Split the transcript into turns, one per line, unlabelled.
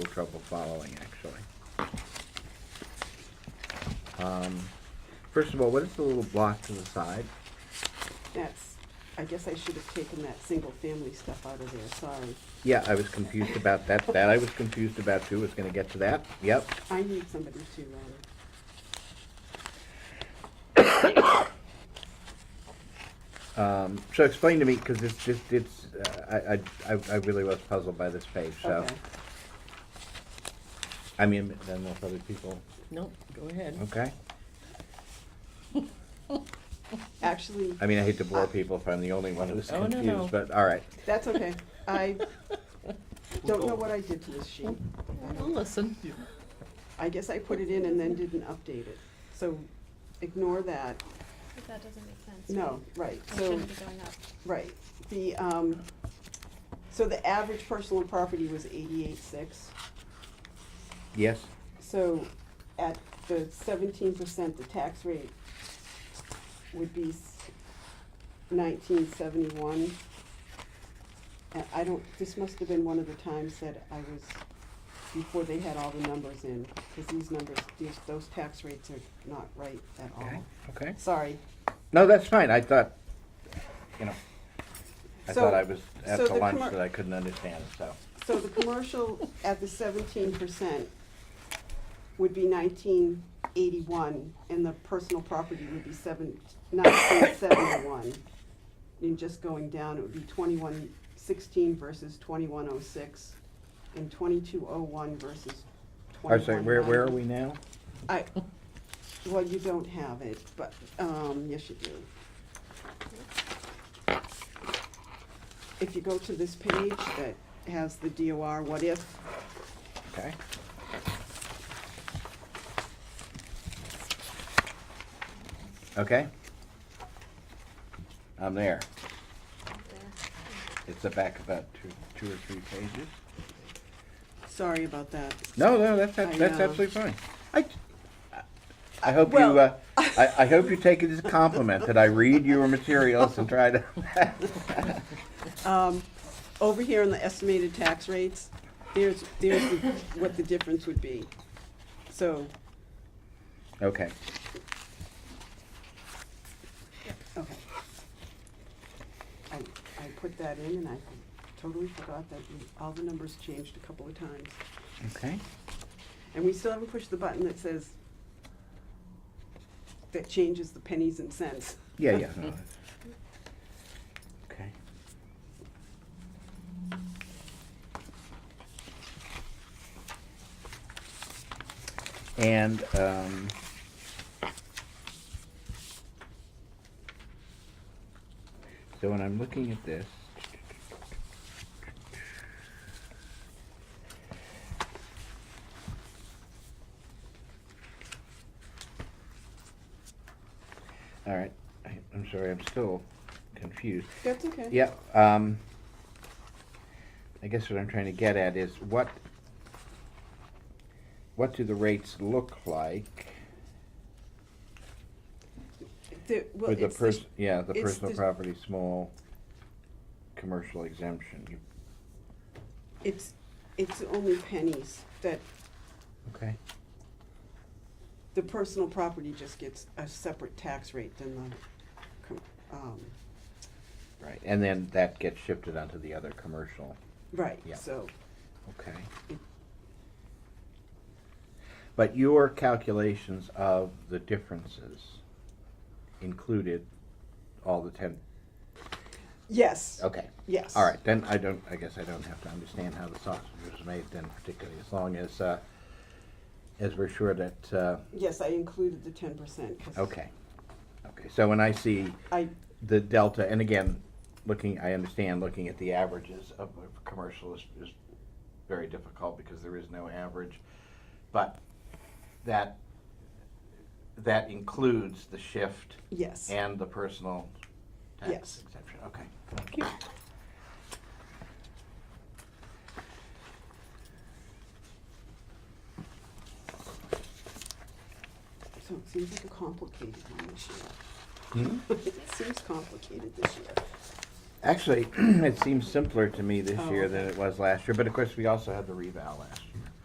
little trouble following, actually. Um, First of all, what is the little block to the side?
That's, I guess I should have taken that single-family stuff out of there, sorry.
Yeah, I was confused about that. That I was confused about too. Was gonna get to that. Yep.
I need somebody to, um,
Um, so explain to me, because it's just, it's, uh, I, I, I- I really was puzzled by this page, so.
okay.
I mean, then with other people,
Nope, go ahead.
okay?
Actually,
I mean, I hate to bore people if I'm the only one who's
Uh, Oh, no, no.
confused, but all right.
that's okay. I don't know what I did to this sheet.
We'll listen.
I guess I put it in and then didn't update it. So ignore that.
But that doesn't make sense.
No, right,
It
so,
shouldn't be going up.
right. The, um, so the average personal property was eighty-eight six.
Yes?
So at the seventeen percent, the tax rate would be nineteen seventy-one. And I don't, this must have been one of the times that I was, before they had all the numbers in, because these numbers, these, those tax rates are not right at
Oh.
all.
Okay.
Sorry.
No, that's fine. I thought, you know, I
So-
thought I was at
so
the
the
lunch
commer-
that I couldn't understand, so.
So the commercial at the seventeen percent would be nineteen eighty-one, and the personal property would be seven, nineteen seventy-one. And just going down, it would be twenty-one sixteen versus twenty-one oh six, and twenty-two oh one versus
I
twenty-one.
say, where, where are we now?
I, well, you don't have it, but, um, yes, you do. If you go to this page that has the DOR what if,
Okay. Okay? I'm there. It's the back about two, two or three pages.
sorry about that.
No, no, that's,
I
that's that's
know.
absolutely fine. I, I hope you,
Well-
uh, I, I hope you take it as a compliment that I read your materials and try to.
Um, over here on the estimated tax rates, there's, there's the- what the difference would be. So,
Okay,
okay. I, I put that in and I totally forgot that all the numbers changed a couple of times.
okay.
And we still haven't pushed the button that says, that changes the pennies and cents.
Yeah, yeah. no, that's- Okay. And, um, so when I'm looking at this, all right, I, I'm sorry, I'm still confused.
That's okay.
Yeah, um, I guess what I'm trying to get at is what, what do the rates look like
The- well,
for the
it's the-
pers- yeah, the
it's
personal
the-
property, small, commercial exemption? You-
It's, it's only pennies that
Okay,
the personal property just gets a separate tax rate than the, com- um,
right, and then that gets shifted onto the other commercial,
right,
Yeah.
so.
okay.
it-
But your calculations of the differences included all the ten,
Yes,
okay.
yes.
All right, then I don't, I guess I don't have to understand how the sausage was made then particularly, as long as, uh, as we're sure that, uh,
Yes, I included the ten percent.
okay. Okay, so when I see
I,
the delta, and again, looking, I understand looking at the averages of of commercial is, is very difficult because there is no average. But that, that includes the shift
yes.
and the personal tax
Yes.
exemption, okay. Thank you.
So it seems like a complicated one this year.
Hmm?
It seems complicated this year.
Actually, it seems simpler to me this
Oh,
year
okay.
than it was last year, but of course, we also had the revow last